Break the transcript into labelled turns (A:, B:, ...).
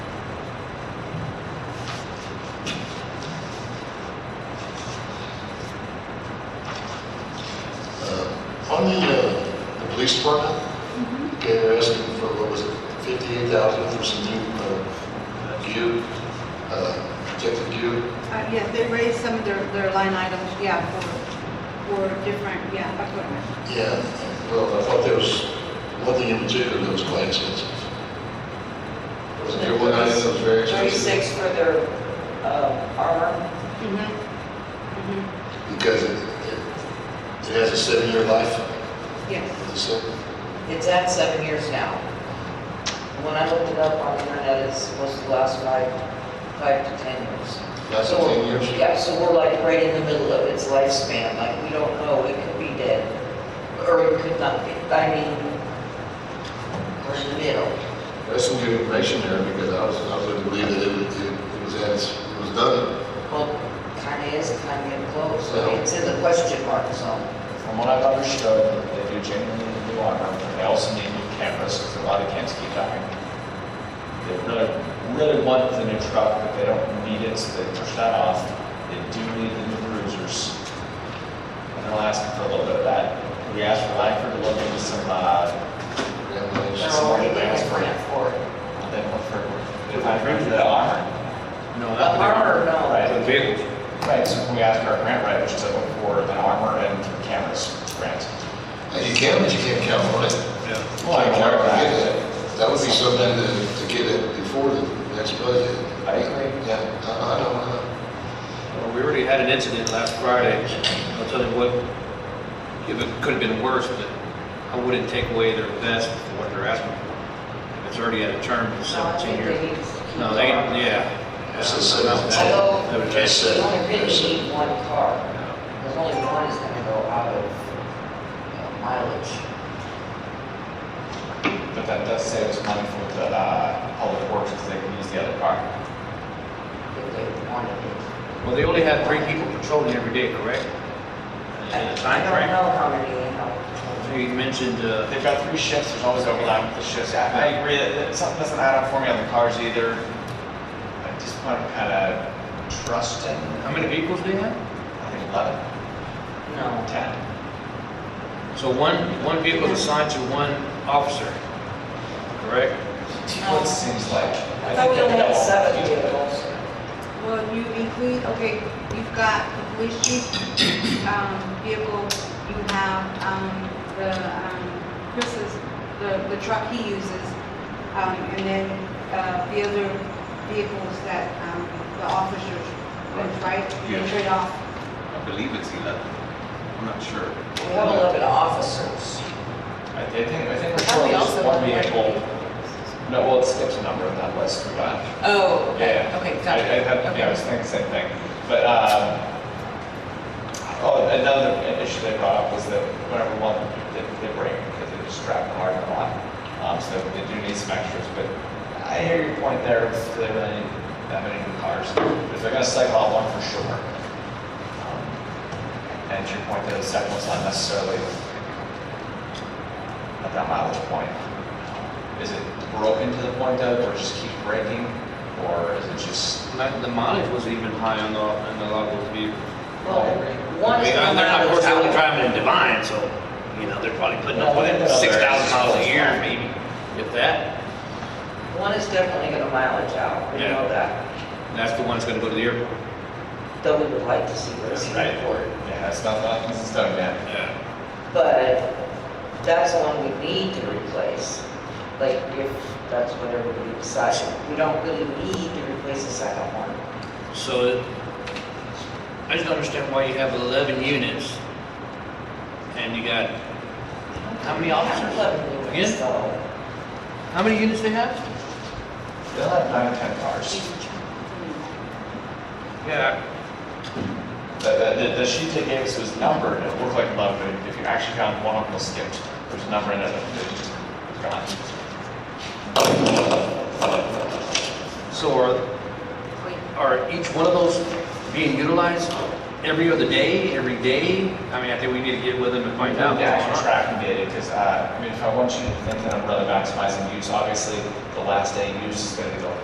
A: Uh, police department. Okay, they're asking for, what was it, fifty-eight thousand for some new, uh, gear, uh, protective gear.
B: Uh, Yeah, they raised some of their, their line items, yeah, for, for different, yeah, equipment.
A: Yeah, well, I thought there was one thing in particular that was quite expensive. Was there one item that was very expensive?
C: 36 for their uh, armor.
B: Mhm. Mhm.
A: Because it, it, it has a seven-year life,
B: Yes.
A: and so,
C: It's at seven years now. When I looked it up on the internet, it's supposed to last five, five to 10 years.
A: that's
C: So-
A: ten years.
C: Yeah, so we're like right in the middle of its lifespan, like we don't know, it could be dead, or it could not be. I mean, we're in the middle.
A: That's some good information there, because I was, I was going to believe that it was, it was, as- it was done.
C: Well, kind of is, kind of close. I mean,
A: Yeah.
C: It's in the question mark zone.
D: From what I've understood, they do genuinely need new armor, but they also need new cameras, because a lot of kids keep dying. They really, really want the new truck, but they don't need it, so they push that off. They do need the new cruisers. And they'll ask for a little bit of that. We asked for Langford to look into some, uh,
C: They're
A: Congratulations.
D: Some more
C: already paying
D: advanced
C: grant for it.
D: they want for, if I agree with that armor.
E: No,
C: The
E: not the
C: armor, no.
E: For the vehicles.
D: Right, so we asked for our grant writers to look for the armor and cameras grant.
A: And you can, but you can't count on it.
E: Yeah.
D: Well, I
A: Can't
D: remember
A: forget
D: that.
A: that. That would be something to, to get it before the next budget.
D: I agree.
A: Yeah, I, I don't know.
E: Well, we already had an incident last Friday. I'll tell you what, if it could have been worse, but I wouldn't take away their vest for what they're asking for. It's already at a term of
C: No, I
E: 17
C: think they
E: years.
C: need to keep.
E: No, they,
C: the armor.
E: yeah.
A: It's a seven.
C: Although-
E: They would
A: It's
E: change
C: You
A: a-
C: only
A: it's
C: really
A: a-
C: need one car.
E: it.
C: There's only one is gonna go out of you know, mileage.
D: But that does save us money for the uh, public works, because they can use the other car.
C: if they wanted it.
E: Well, they only had three people patrolling every day, correct? In the
C: I
E: time
C: don't
E: frame?
C: know how many, how.
E: You mentioned, uh,
D: They've got three shifts, there's always overlap with the shifts. I I agree that that something doesn't add up for me on the cars either. I just want to kind of trust in,
E: how many vehicles do you have?
D: I think, 11,
C: No.
D: 10.
E: So one, one vehicle is assigned to one officer, correct?
D: It seems like.
C: Oh. I thought we
D: think
C: only
D: they're
C: had
D: all-
C: seven vehicles.
B: Well, you include, okay, you've got the police chief, um, vehicle, you have, um, the, um, Chris's, the, the truck he uses, um, and then, uh, the other vehicles that, um, the officers, use, right? They
F: Yeah.
B: trade off.
F: I believe it's 11. I'm not sure.
C: We have eleven officers.
D: I I think, I think we're
C: I thought
D: sure
C: we
D: there's
C: also
D: one
C: had one
D: vehicle. No, well, it skips a number on that list we got.
C: Oh,
D: Yeah. I- I- I- Yeah, I was thinking the same thing. But, um, oh, another issue they brought up was that whenever one, they they break because they just drag the hard a lot. Um, So they do need some extras, but I hear your point there, it's- they really need that many new cars. But If they're gonna cycle out one for sure. Um, And to your point, that the second one's not necessarily at that mileage point. Is it broken to the point of, or just keep breaking, or is it just?
E: Like, the mileage was even high on the, on the lot of those vehicles.
C: Well, one
E: I
C: is
E: mean,
C: going
E: they're
C: out
E: not, of
C: of
E: course, they're only
C: town.
E: driving in Divine, so, you know, they're probably putting up
D: No,
E: with
D: they're-
E: six thousand miles a
D: they're-
E: year, maybe, if that.
C: One is definitely gonna mileage out, we
E: Yeah.
C: know that.
E: And That's the one that's gonna go to the airport.
C: Though we would like to see what's in
D: Right.
C: it for it.
D: Yeah, it's not, nothing's in stone yet.
E: Yeah.
C: But that's one we need to replace, like if that's what everybody decides. We don't really need to replace the second one.
E: So, it- I just don't understand why you have eleven units, and you got, how many officers?
C: Eleven units,
E: Again?
C: though.
E: How many units they have?
D: They'll have nine or 10 cars.
E: Yeah.
D: The, the, the- the sheet they gave us was numbered, and it looked like 11, but if you actually found one of them was skipped, there's a number in it that gone.
E: So are, are each one of those being utilized every other day, every day? I mean, I think we need to get with them and find out.
D: The actual
E: what's going on.
D: tracking data, because, uh, I mean, if I want you to think that I'm really maximizing use, obviously, the last day use is gonna be the